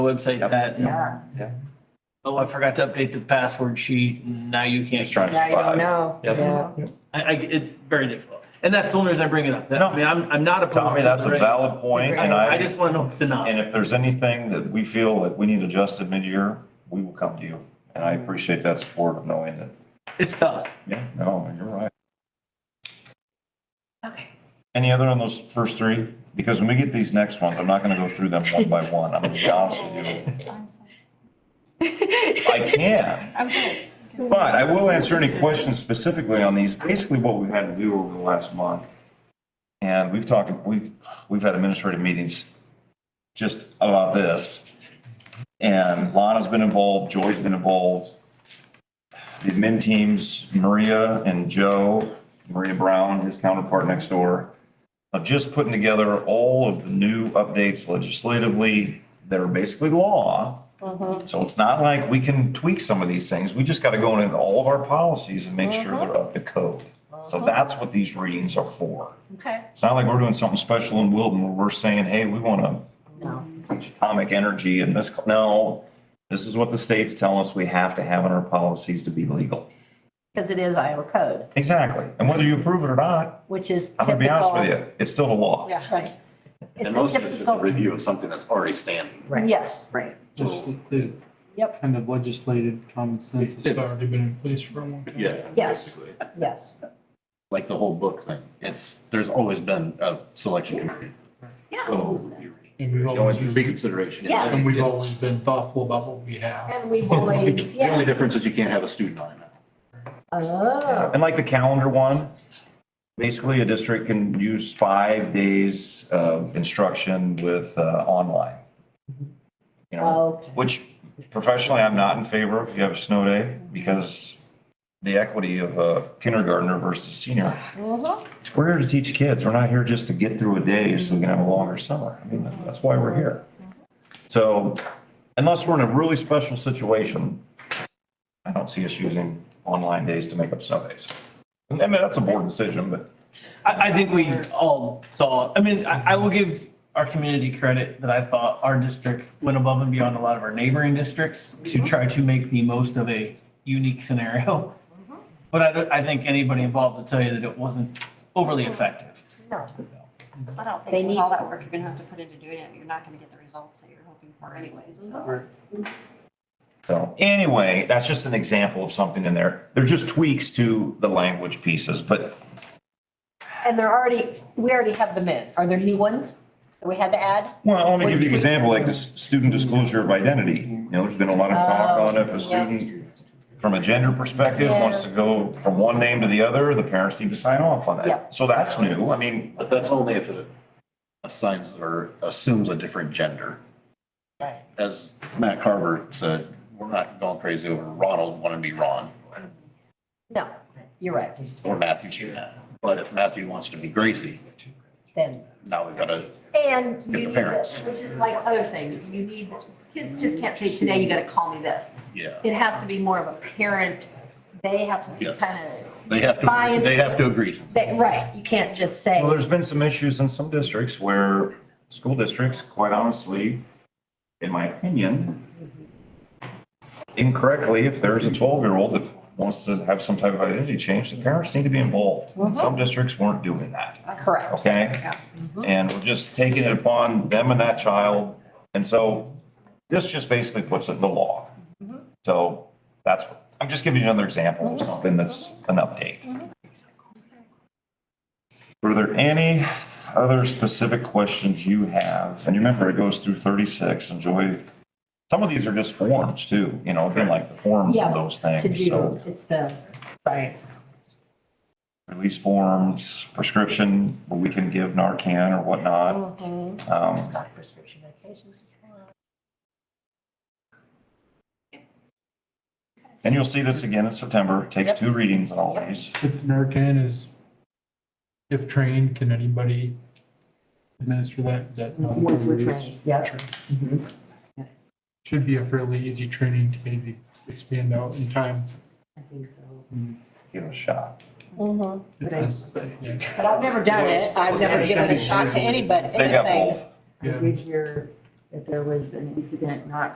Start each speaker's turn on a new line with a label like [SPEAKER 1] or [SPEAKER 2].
[SPEAKER 1] website that.
[SPEAKER 2] Yeah,
[SPEAKER 1] Oh, I forgot to update the password sheet. Now you can't.
[SPEAKER 3] Just trying to
[SPEAKER 2] now you don't
[SPEAKER 3] survive.
[SPEAKER 2] know.
[SPEAKER 3] Yep.
[SPEAKER 2] Yeah.
[SPEAKER 1] I, I, it's very difficult. And that's the only reason I bring it up. That- I
[SPEAKER 3] No.
[SPEAKER 1] mean, I'm, I'm not opposed.
[SPEAKER 3] Tommy,
[SPEAKER 1] to
[SPEAKER 3] that's
[SPEAKER 1] the
[SPEAKER 3] a
[SPEAKER 1] regs.
[SPEAKER 3] valid point, and
[SPEAKER 1] I, I
[SPEAKER 3] I,
[SPEAKER 1] just want to know if it's enough.
[SPEAKER 3] and if there's anything that we feel that we need adjusted mid-year, we will come to you. And
[SPEAKER 2] Mm-hmm.
[SPEAKER 3] I appreciate that support of knowing that,
[SPEAKER 1] It's tough.
[SPEAKER 3] yeah, no, you're right.
[SPEAKER 2] Okay.
[SPEAKER 3] Any other on those first three? Because when we get these next ones, I'm not gonna go through them one by one, I'm gonna be honest with you.
[SPEAKER 4] I'm so
[SPEAKER 3] I can,
[SPEAKER 4] Okay.
[SPEAKER 3] but I will answer any questions specifically on these, basically what we've had to do over the last month. And we've talked, we've, we've had administrative meetings just about this. And Lana's been involved, Joy's been involved. The admin teams, Maria and Joe, Maria Brown, his counterpart next door, of just putting together all of the new updates legislatively that are basically law. So it's not like we can tweak some of these things. We just got to go into all of our policies and make sure they're up to code. So that's what these readings are for.
[SPEAKER 2] Okay.
[SPEAKER 3] It's not like we're doing something special in Wilton where we're saying, hey, we want to
[SPEAKER 2] No.
[SPEAKER 3] atomic energy and this, no. This is what the state's telling us we have to have in our policies to be legal.
[SPEAKER 2] Because it is Iowa code,
[SPEAKER 3] Exactly. And whether you approve it or not,
[SPEAKER 2] which is
[SPEAKER 3] I'm
[SPEAKER 2] typical.
[SPEAKER 3] gonna be honest with you, it's still the law.
[SPEAKER 2] Yeah, right.
[SPEAKER 5] And
[SPEAKER 2] It's
[SPEAKER 5] most
[SPEAKER 2] a
[SPEAKER 5] of it's just a
[SPEAKER 2] typical,
[SPEAKER 5] review of something that's already standing.
[SPEAKER 2] yes, right,
[SPEAKER 6] Just the- the
[SPEAKER 2] yep,
[SPEAKER 6] kind of legislated common sense has
[SPEAKER 5] It's-
[SPEAKER 6] already been in place for a long time.
[SPEAKER 5] Yeah.
[SPEAKER 2] Yes.
[SPEAKER 5] basically.
[SPEAKER 2] yes,
[SPEAKER 5] Like the whole book thing. It's, there's always been a selection committee.
[SPEAKER 2] yeah.
[SPEAKER 5] So
[SPEAKER 6] And we've
[SPEAKER 5] you know,
[SPEAKER 6] always
[SPEAKER 5] it's
[SPEAKER 6] used-
[SPEAKER 5] reconsideration.
[SPEAKER 2] Yeah.
[SPEAKER 6] And we've always been thoughtful about what we have.
[SPEAKER 2] And we've always,
[SPEAKER 5] The only
[SPEAKER 2] yes.
[SPEAKER 5] difference is you can't have a student on it now.
[SPEAKER 2] Oh,
[SPEAKER 3] And like the calendar one, basically a district can use five days of instruction with uh, online. You know,
[SPEAKER 2] Oh, Okay.
[SPEAKER 3] which professionally I'm not in favor of, if you have a snow day, because the equity of a kindergartner versus senior.
[SPEAKER 2] Mm-hmm.
[SPEAKER 3] We're here to teach kids, we're not here just to get through a day so we can have a longer summer, I mean, that's why we're here. So unless we're in a really special situation, I don't see us using online days to make up Sundays. I mean, that's a board decision, but
[SPEAKER 1] I, I think we all saw, I mean, I, I will give our community credit that I thought our district went above and beyond a lot of our neighboring districts to
[SPEAKER 3] Mm-hmm.
[SPEAKER 1] try to make the most of a unique scenario.
[SPEAKER 3] Mm-hmm.
[SPEAKER 1] But I don't, I think anybody involved will tell you that it wasn't overly effective.
[SPEAKER 2] no,
[SPEAKER 4] But I don't
[SPEAKER 2] They
[SPEAKER 4] think with
[SPEAKER 2] need-
[SPEAKER 4] all that work you're gonna have to put into doing it, you're not gonna get the results that you're hoping for anyways, so.
[SPEAKER 3] so anyway, that's just an example of something in there. They're just tweaks to the language pieces, but
[SPEAKER 2] and they're already, we already have them in, are there new ones that we had to add?
[SPEAKER 3] Well, let me give you an example, like the student disclosure of identity. You know, there's been a lot of talk on if a student, from a gender perspective, wants to go from one name to the other, the parents need to sign off on
[SPEAKER 2] Yeah.
[SPEAKER 3] that. So that's new. I mean,
[SPEAKER 5] But that's only if it assigns or assumes a different gender.
[SPEAKER 2] Right.
[SPEAKER 5] As Matt Carver said, we're not going crazy over Ronald wanting to be Ron
[SPEAKER 2] No, you're right,
[SPEAKER 5] or Matthew. being Matt. But if Matthew wants to be Gracie,
[SPEAKER 2] then.
[SPEAKER 5] now we've got to
[SPEAKER 2] And you
[SPEAKER 5] the
[SPEAKER 2] need
[SPEAKER 5] parents.
[SPEAKER 2] this, which is like other things, you need, kids just can't say, today you gotta call me this.
[SPEAKER 5] Yeah.
[SPEAKER 2] It has to be more of a parent, they have to kind
[SPEAKER 5] Yes.
[SPEAKER 2] of,
[SPEAKER 5] They have
[SPEAKER 2] Buy
[SPEAKER 5] to,
[SPEAKER 2] into-
[SPEAKER 5] they have to agree to.
[SPEAKER 2] they, right, you can't just say,
[SPEAKER 3] well, there's been some issues in some districts where school districts, quite honestly, in my opinion, incorrectly, if there's a twelve-year-old that wants to have some type of identity change, the parents need to be involved. And some districts weren't doing that.
[SPEAKER 2] correct.
[SPEAKER 3] okay?
[SPEAKER 2] Mm-hmm.
[SPEAKER 3] And we're just taking it upon them and that child. And so this just basically puts it in the law.
[SPEAKER 2] Mm-hmm.
[SPEAKER 3] So that's, I'm just giving you another example of something that's an
[SPEAKER 2] Mm-hmm.
[SPEAKER 3] update. Were there any other specific questions you have? And remember, it goes through thirty-six, enjoy, some of these are just forms too, you know, again, like the forms
[SPEAKER 2] Yeah,
[SPEAKER 3] of those things,
[SPEAKER 2] To
[SPEAKER 3] so
[SPEAKER 2] do, it's the, right,
[SPEAKER 3] release forms, prescription, where we can give Narcan or whatnot. Um,
[SPEAKER 2] stock prescription medications.
[SPEAKER 3] And you'll see this again in September. It Takes two readings on all these.
[SPEAKER 6] If Narcan is, if trained, can anybody administer that? Is that? not-
[SPEAKER 2] Once we're trained, yeah.
[SPEAKER 6] Should be a fairly easy training to maybe expand out in time.
[SPEAKER 2] I think so.
[SPEAKER 3] Give it a shot.
[SPEAKER 6] Because, yeah,
[SPEAKER 2] But I've never done it, I've never given a shot to anybody,
[SPEAKER 3] They got
[SPEAKER 2] anything.
[SPEAKER 3] both.
[SPEAKER 6] yeah.
[SPEAKER 7] I did hear
[SPEAKER 2] that there was an incident not